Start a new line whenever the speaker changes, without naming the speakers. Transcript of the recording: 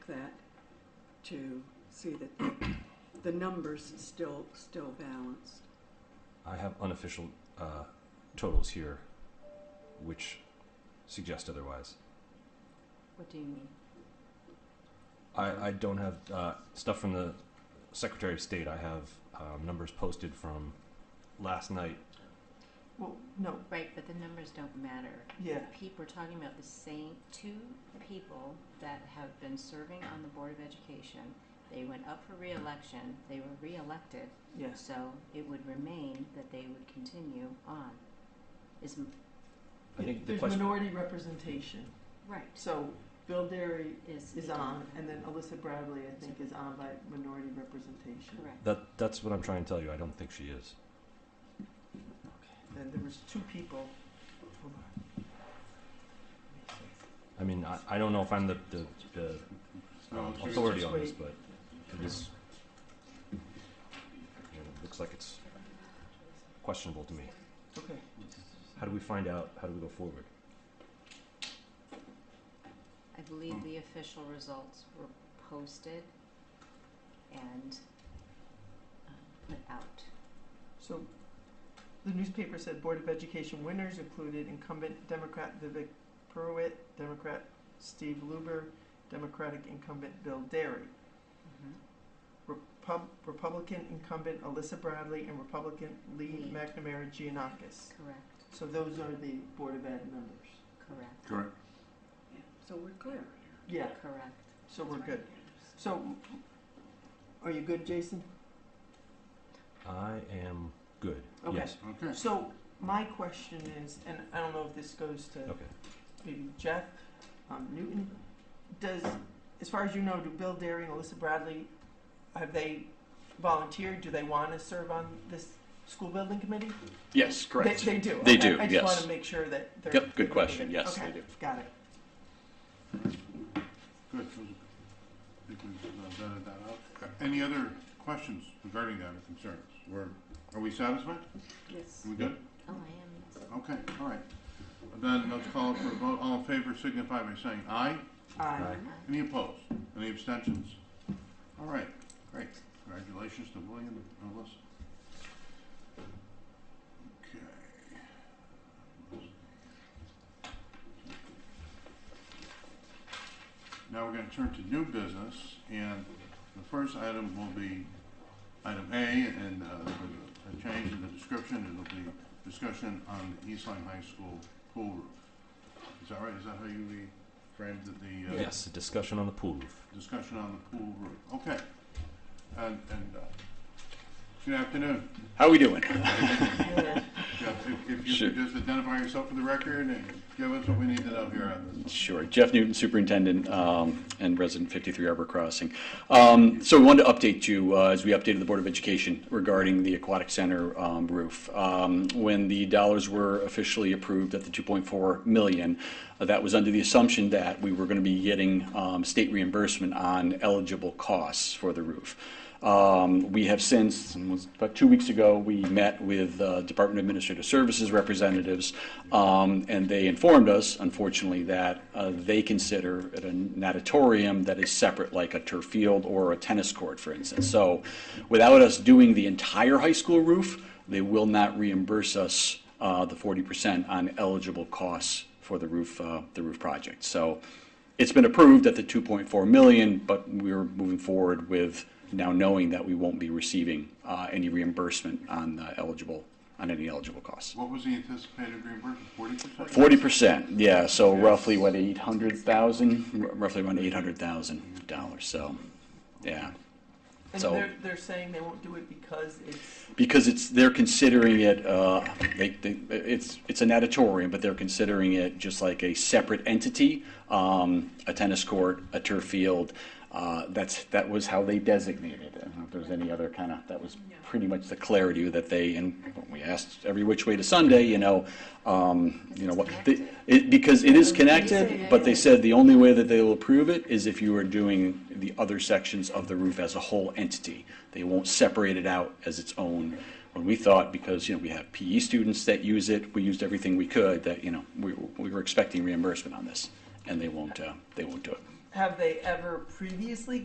that to see that the, the numbers still, still balanced.
I have unofficial uh, totals here, which suggest otherwise.
What do you mean?
I, I don't have uh, stuff from the Secretary of State. I have um, numbers posted from last night.
Well, no,
Right, but the numbers don't matter.
yeah,
People, we're talking about the same, two people that have been serving on the Board of Education. They went up for reelection, they were reelected,
yes.
so it would remain that they would continue on. Is, m-
I think the
There's
question.
minority representation,
right,
so Bill Derry
is.
is on, and then Alyssa Bradley, I think, is on by minority representation.
Correct.
That that's what I'm trying to tell you. I don't think she is.
Then there was two people. Hold on. Let me see.
I mean, I, I don't know if I'm the, the, the um, authority on this, but it is. you know, it looks like it's questionable to me.
Okay,
How do we find out? How do we go forward?
I believe the official results were posted and um, put out.
so the newspaper said Board of Education winners included incumbent Democrat Vivek Purwitt, Democrat Steve Luber, Democratic incumbent Bill Derry.
Mm-hmm.
Repub- Republican incumbent Alyssa Bradley and Republican Lee
Lee.
McNamara Giannakis.
Correct,
So those are the Board of Ed members.
correct,
Correct.
So we're clear.
Yeah,
correct.
so we're good. So, are you good, Jason?
I am good.
Okay.
Yes.
Okay.
So, my question is, and I don't know if this goes to
Okay.
maybe Jeff, um, Newton, does, as far as you know, do Bill Derry and Alyssa Bradley, have they volunteered? Do they want to serve on this school building committee?
Yes, correct.
They, they do.
They
okay.
do,
I just
yes.
want to make sure that they're.
Yep, good question.
okay,
Yes, they do.
Got it.
Good. I think we've uh, vetted that out. Uh, Any other questions regarding that or concerns? We're, are we satisfied?
Yes.
Are we good?
Oh, I am, yes.
Okay, all right. Then let's call for a vote. All in favor signify by saying aye.
Aye.
Uh,
Any opposed? Any abstentions? All right, great. Congratulations to William and Alyssa. Okay. Now we're gonna turn to new business, and the first item will be item A, and uh, there's a change in the description. It'll be discussion on the Eastline High School pool roof. Is that right? Is that how you re- framed the? uh,
Yes. A discussion on the pool roof.
discussion on the pool roof. Okay. And, and, uh, good afternoon.
How we doing?
Yeah.
Jeff, if, if you
Sure.
could just identify yourself for the record and give us what we need to know here on this.
Sure. Jeff Newton, Superintendent um, and resident 53 Arbor Crossing. Um, So we wanted to update you uh, as we updated the Board of Education regarding the Aquatic Center um, roof. Um, When the dollars were officially approved at the 2.4 million, uh, that was under the assumption that we were going to be getting um, state reimbursement on eligible costs for the roof. Um, We have since, it was about two weeks ago, we met with uh, Department of Administrative Services representatives, um, and they informed us, unfortunately, that uh, they consider it an natatorium that is separate, like a turf field or a tennis court, for instance. So without us doing the entire high school roof, they will not reimburse us uh, the 40% on eligible costs for the roof, uh, the roof project. So it's been approved at the 2.4 million, but we're moving forward with now knowing that we won't be receiving uh, any reimbursement on the eligible, on any eligible costs.
What was the anticipated reimbursement, forty percent?
Forty percent, yeah, so roughly, what, eight hundred thousand, roughly around eight hundred thousand dollars, so, yeah.
And
So-
they're, they're saying they won't do it because it's,
Because it's, they're considering it, uh, they, they, it's, it's an auditorium, but they're considering it just like a separate entity, um, a tennis court, a turf field, uh, that's, that was how they designated it. I don't know if there was any other kind of, that was pretty much the clarity that they, and we asked every which way to Sunday, you know, um, you know, what, the- it, because it is connected, but they said the only way that they will approve it is if you are doing the other sections of the roof as a whole entity. They won't separate it out as its own. When we thought, because, you know, we have PE students that use it, we used everything we could, that, you know, we, we were expecting reimbursement on this, and they won't, uh, they won't do it.
have they ever previously